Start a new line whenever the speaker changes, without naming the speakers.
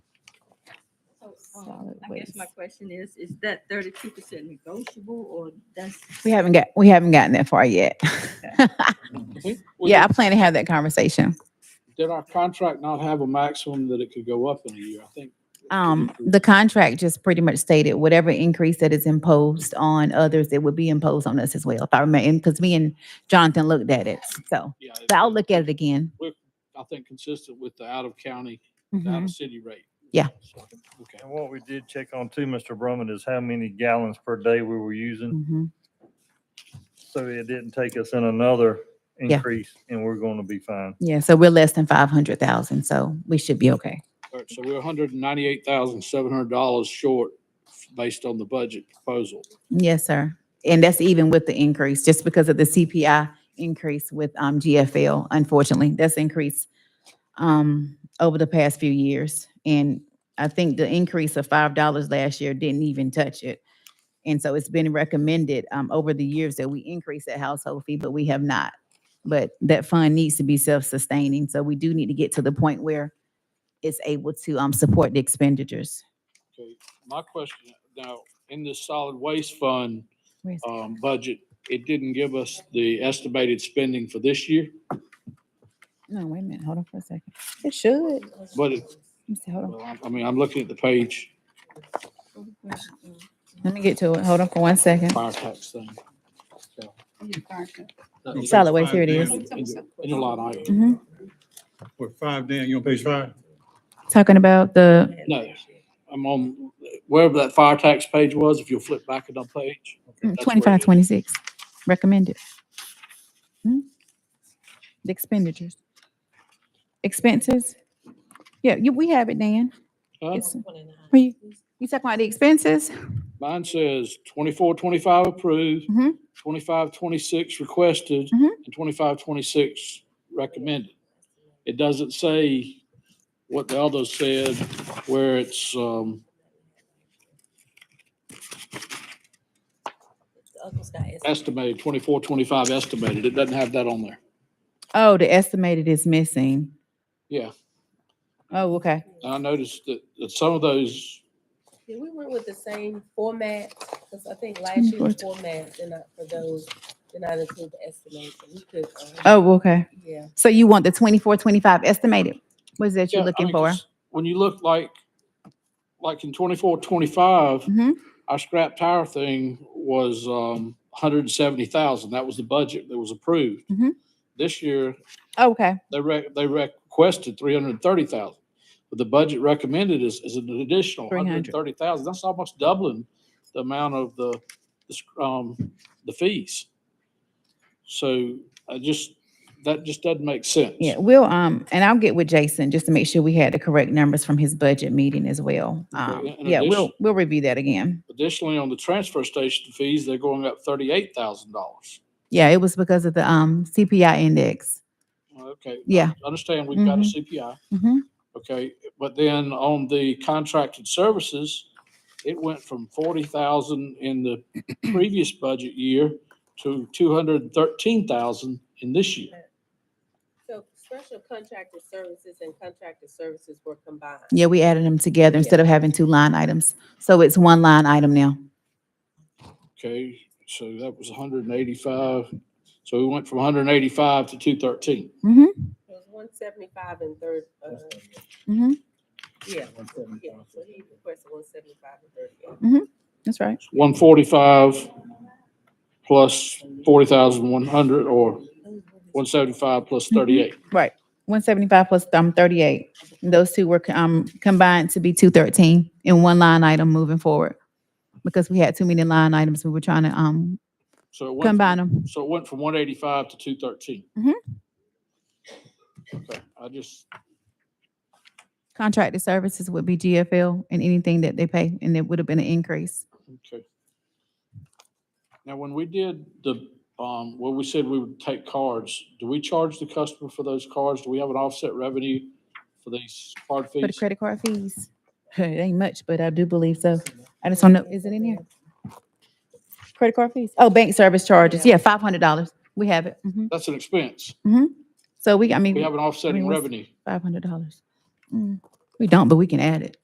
Solid
um, I guess my
waste.
question is, is that thirty-two percent negotiable or that's?
We haven't got, we haven't gotten that far yet.
We- we-
Yeah, I plan to have that conversation.
Did our contract not have a maximum that it could go up in a year? I think.
Um,
Mm-hmm.
the contract just pretty much stated whatever increase that is imposed on others, it would be imposed on us as well. If I remember, because me and Jonathan looked at it, so.
Yeah, it-
But I'll look at it again.
I think consistent with the out of county, the out
Mhm.
of city rate.
Yeah.
So, Okay.
And what we did check on too, Mr. Brumman, is how many gallons per day we were using.
Mhm.
So it didn't take us in another
Yeah.
increase and we're going to be fine.
Yeah, so we're less than five hundred thousand, so we should be okay.
All right, so we're hundred and ninety-eight thousand, seven hundred dollars short based on the budget proposal.
Yes, sir. And that's even with the increase, just because of the CPI increase with, um, GFL, unfortunately, that's increased, um, over the past few years. And I think the increase of five dollars last year didn't even touch it. And so it's been recommended, um, over the years that we increase that household fee, but we have not. But that fund needs to be self-sustaining, so we do need to get to the point where it's able to, um, support the expenditures.
Okay, my question, now, in this solid waste fund,
Where's-
um, budget, it didn't give us the estimated spending for this year,
No, wait a minute, hold on for a second. It should.
but it,
Let me see, hold on.
well, I- I mean, I'm looking at the page,
Let me get to it. Hold on for one second.
fire tax thing. That-
Solid waste, here it is.
In a lot of,
Mhm.
We're five down, you on page five?
Talking about the,
no, I'm on, wherever that fire tax page was, if you'll flip back another page.
mm,
that's where it
25,
is.
26, recommended. Hmm? The expenditures. Expenses? Yeah, you, we have it, Dan.
Huh?
It's- we- You talking about the expenses?
Mine says twenty-four, twenty-five approved,
Mhm.
twenty-five, twenty-six requested,
Mhm.
and twenty-five, twenty-six recommended. It doesn't say what the others said, where it's, um, estimated, twenty-four, twenty-five estimated. It doesn't have that on there.
Oh, the estimated is missing.
Yeah,
Oh, okay.
and I noticed that, that some of those,
Did we work with the same format? Because I think last
Mm,
year's format did not, for those, did not include the estimation. We could, uh,
Oh, okay.
yeah.
So you want the 24, 25 estimated? What is that
Yeah,
you're
I
looking
mean,
for?
just When you look like, like in twenty-four, twenty-five,
Mhm.
our scrap tire thing was um hundred and seventy thousand. That was the budget that was approved.
Mhm.
This year,
Oh, Okay,
they rec- they requested three hundred and thirty thousand. But the budget recommended is is an additional hundred and
300.
thirty thousand. That's almost doubling the amount of the the sc- um the fees. So I just, that just doesn't make sense.
yeah, we'll, um, and I'll get with Jason just to make sure we had the correct numbers from his budget meeting as well. Um,
in
yeah, we'll,
addition-
we'll review that again.
Additionally, on the transfer station fees, they're going up thirty-eight thousand dollars.
Yeah, it was because of the um CPI index.
Okay,
Yeah.
understand we've got a
Mhm.
CPI.
hmm
Okay, but then on the contracted services, it went from forty thousand in the previous budget year to two hundred and thirteen thousand in this year.
So special contracted services and contracted services were combined.
Yeah, we added them together instead of having two line items. So it's one line item now.
Okay, so that was hundred and eighty-five. So we went from hundred and eighty-five to two thirteen.
hmm
It was one seventy-five and third, uh,
hmm
yeah, yeah. So he requested one seventy-five and thirty-eight.
That's right.
One forty-five plus forty thousand one hundred or one seventy-five plus
Mhm.
thirty-eight.
Right. One seventy-five plus um thirty-eight. And Those two were co- um combined to be two thirteen in one line item moving forward. Because we had too many line items, we were trying to um
So it went. from-
combine them.
So it went from one eighty-five to two thirteen?
Mhm.
Okay, I just,
Contracted services would be GFL and anything that they pay, and it would have been an increase.
okay. Now, when we did the, um, well, we said we would take cards, do we charge the customer for those cards? Do we have an offset revenue for these card
For the
fees?
credit card fees, it ain't much, but I do believe so. I just don't know, is it in here? Credit card fees? Oh, bank service charges. Yeah, five hundred dollars. We have it. Mhm.
That's an expense.
So we, I
We
mean,
have an offsetting
what's-
revenue.
five hundred dollars. We don't, but we can add it.